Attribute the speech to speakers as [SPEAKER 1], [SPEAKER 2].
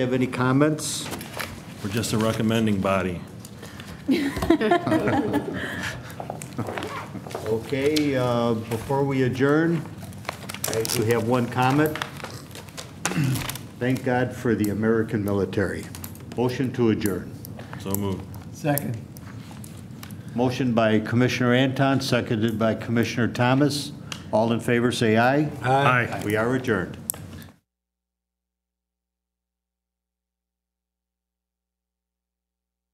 [SPEAKER 1] Have any comments?
[SPEAKER 2] We're just a recommending body.
[SPEAKER 1] Okay, uh, before we adjourn, I do have one comment. Thank God for the American military. Motion to adjourn.
[SPEAKER 2] So moved.
[SPEAKER 3] Second.
[SPEAKER 1] Motion by Commissioner Anton, seconded by Commissioner Thomas. All in favor, say aye.
[SPEAKER 2] Aye.
[SPEAKER 1] We are adjourned.